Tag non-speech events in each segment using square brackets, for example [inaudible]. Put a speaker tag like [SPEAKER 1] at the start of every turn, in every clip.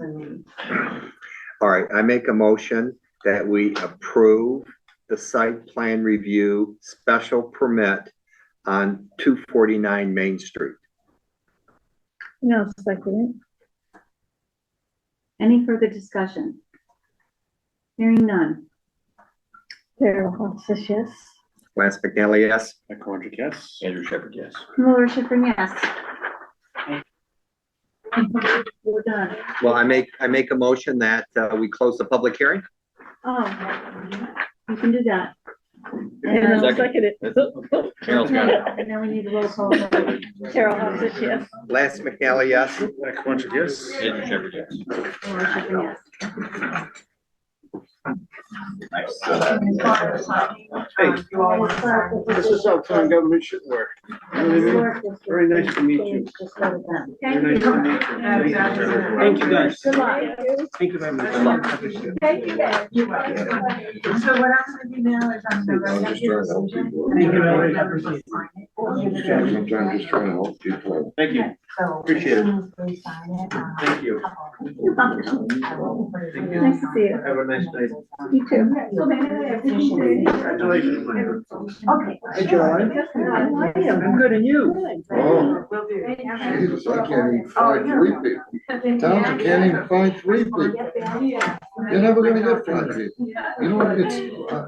[SPEAKER 1] Um,
[SPEAKER 2] All right, I make a motion that we approve the site plan review special permit on two forty-nine Main Street.
[SPEAKER 3] No, second
[SPEAKER 1] Any further discussion? Hearing none.
[SPEAKER 3] it. Carol Holsis, yes.
[SPEAKER 2] Lance McNally, yes?
[SPEAKER 4] Mike Colangelo, yes.
[SPEAKER 5] Andrew Shepherd, yes.
[SPEAKER 1] Laura Schiffern, yes. We're done.
[SPEAKER 2] Well, I make, I make a motion that, uh, we close the public hearing?
[SPEAKER 1] Oh, you can do that.
[SPEAKER 3] And
[SPEAKER 1] And
[SPEAKER 3] I'll
[SPEAKER 1] then-
[SPEAKER 3] second it.
[SPEAKER 5] Carol's got it.
[SPEAKER 6] [laughs]
[SPEAKER 1] and then we need a roll call. vote.
[SPEAKER 3] Carol Holsis, yes.
[SPEAKER 2] Lance McNally, yes?
[SPEAKER 4] Mike Colangelo, yes.
[SPEAKER 5] Andrew Shepherd, yes.
[SPEAKER 1] Laura Schiffern, yes.
[SPEAKER 4] This is how town government should work. You know what I mean? Very nice to meet you. Very
[SPEAKER 1] Thank
[SPEAKER 4] nice to
[SPEAKER 1] you.
[SPEAKER 4] meet you. Thank
[SPEAKER 7] Thank
[SPEAKER 4] you.
[SPEAKER 7] you, guys.
[SPEAKER 1] Good luck.
[SPEAKER 7] Thank you very much.
[SPEAKER 6] Good luck. Thank you, guys. You're welcome. So what I'm gonna do now is I'm gonna.
[SPEAKER 8] I'm just trying to help people.
[SPEAKER 7] Thank you, Valerie.
[SPEAKER 8] I'm trying, just trying to help people.
[SPEAKER 4] Thank you. Appreciate it.
[SPEAKER 6] uh,
[SPEAKER 4] Thank you.
[SPEAKER 3] Nice to see you.
[SPEAKER 4] Have a nice night.
[SPEAKER 1] You too.
[SPEAKER 4] Congratulations, Mike.
[SPEAKER 1] Okay.
[SPEAKER 7] Hey, John. I'm good, and you?
[SPEAKER 8] Oh,
[SPEAKER 6] Will do.
[SPEAKER 8] Jesus, I can't
[SPEAKER 6] Oh,
[SPEAKER 8] even find three people. Towns, I can't even find three people. You're never gonna get five people. You know what it's, uh,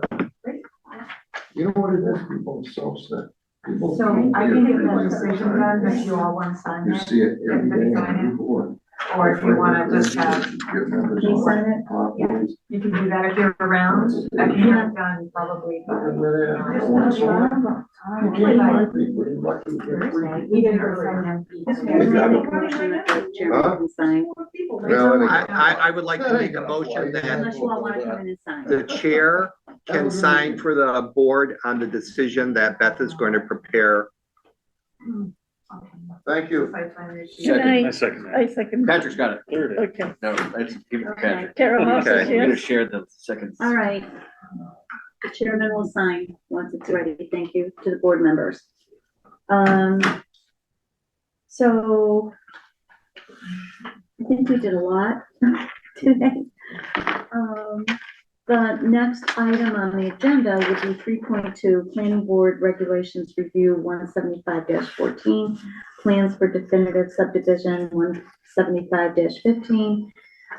[SPEAKER 8] you know what it is, people are so upset. People
[SPEAKER 6] So
[SPEAKER 8] can't
[SPEAKER 6] I
[SPEAKER 8] hear
[SPEAKER 6] think
[SPEAKER 8] people
[SPEAKER 6] it's a
[SPEAKER 8] every
[SPEAKER 6] decision
[SPEAKER 8] time.
[SPEAKER 6] done, that you all want to sign
[SPEAKER 8] You
[SPEAKER 6] it,
[SPEAKER 8] see it every day
[SPEAKER 6] Everybody sign
[SPEAKER 8] on the board.
[SPEAKER 6] or if you want to just have,
[SPEAKER 8] Get members
[SPEAKER 6] you
[SPEAKER 8] on.
[SPEAKER 6] sign it,
[SPEAKER 8] Populace.
[SPEAKER 6] you can do that if you're around. I can have done probably.
[SPEAKER 8] I don't want to sign it. You can't find people, you're lucky to get three people.
[SPEAKER 6] We did earlier.
[SPEAKER 8] Huh?
[SPEAKER 2] I, I, I would like to make a motion that
[SPEAKER 1] Unless you all want to come in and sign.
[SPEAKER 2] the chair can sign for the board on the decision that Beth is going to prepare.
[SPEAKER 8] Thank you.
[SPEAKER 3] Good
[SPEAKER 4] I
[SPEAKER 3] night.
[SPEAKER 4] second that.
[SPEAKER 3] I second. it.
[SPEAKER 5] Patrick's got it.
[SPEAKER 4] Third.
[SPEAKER 3] Okay.
[SPEAKER 5] No, that's, give it to Patrick.
[SPEAKER 3] Carol Holsis,
[SPEAKER 5] Okay, we're gonna
[SPEAKER 3] yes.
[SPEAKER 5] share the second.
[SPEAKER 1] All right. The Chairman will sign once it's ready. Thank you to the board members. Um, so I think we did a lot [laughs] today. Um, the next item on the agenda would be three point two, planning board regulations review one seventy-five fourteen, plans for definitive subdivision one seventy-five fifteen,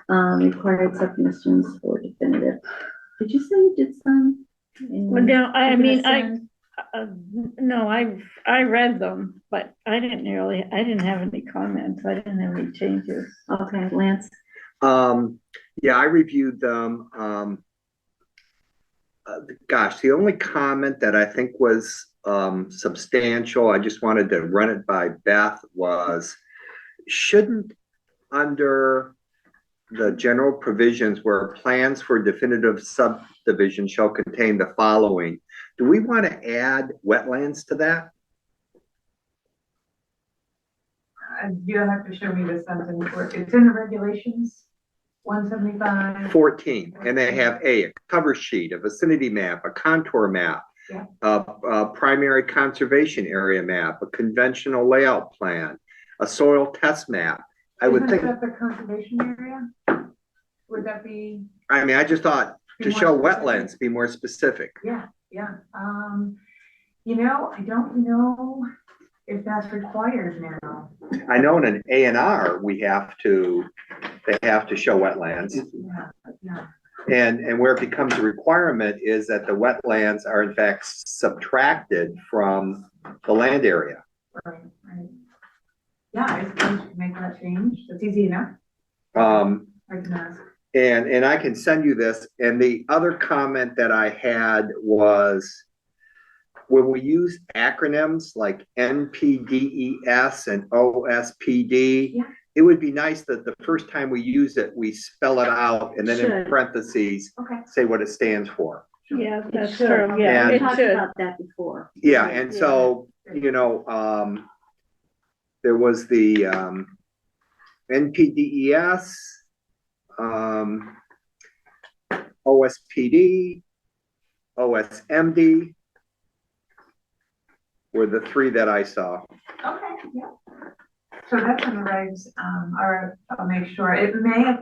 [SPEAKER 1] um, required submissions for definitive. Did you say you did some? in-
[SPEAKER 3] Well, no, I
[SPEAKER 1] Mm. I'm gonna
[SPEAKER 3] mean, I,
[SPEAKER 1] send-
[SPEAKER 3] uh, no, I, I read them, but I didn't really, I didn't have any comments. I didn't have any changes.
[SPEAKER 1] Okay, Lance,
[SPEAKER 2] Um, yeah, I reviewed them, um. uh, gosh, the only comment that I think was, um, substantial, I just wanted to run it by Beth was. Shouldn't, under the general provisions where plans for definitive subdivision shall contain the following. Do we want to add wetlands to that?
[SPEAKER 6] You'll have to show me the sentence, where- it's in the regulations, one seventy-five.
[SPEAKER 2] 14, and they have A, a cover sheet, a vicinity map, a contour map,
[SPEAKER 6] Yeah.
[SPEAKER 2] a, a primary conservation area map, a conventional layout plan, a soil test map. I would think,
[SPEAKER 6] Isn't that the conservation area? Would that be?
[SPEAKER 2] I mean, I just thought
[SPEAKER 6] be
[SPEAKER 2] to
[SPEAKER 6] more
[SPEAKER 2] show
[SPEAKER 6] specific?
[SPEAKER 2] wetlands, be more specific.
[SPEAKER 6] Yeah, yeah, um, you know, I don't know if that's required now.
[SPEAKER 2] I know in an A and R, we have to, they have to show wetlands.
[SPEAKER 6] Yeah, yeah.
[SPEAKER 2] And, and where it becomes a requirement is that the wetlands are in fact subtracted from the land area.
[SPEAKER 6] Right, right. Yeah, I suppose you can make that change, that's easy enough,
[SPEAKER 2] Um,
[SPEAKER 6] I can ask.
[SPEAKER 2] And, and I can send you this, and the other comment that I had was when we use acronyms like NPDES E and OSPD,
[SPEAKER 6] Yeah.
[SPEAKER 2] it would be nice that the first time we use it, we spell it out and then in
[SPEAKER 1] Should.
[SPEAKER 2] parentheses,
[SPEAKER 6] Okay.
[SPEAKER 2] say what it stands for.
[SPEAKER 3] Yeah, that's
[SPEAKER 1] should.
[SPEAKER 3] true. Yeah,
[SPEAKER 1] we
[SPEAKER 3] it
[SPEAKER 1] talked
[SPEAKER 3] should.
[SPEAKER 1] about that before.
[SPEAKER 2] Yeah, and so, you know, um, there was the, um, NPDES, E um, OSPD, OSMD were the three that I saw.
[SPEAKER 6] Okay, yeah. So that's in the regs, um, or I'll make sure, it may have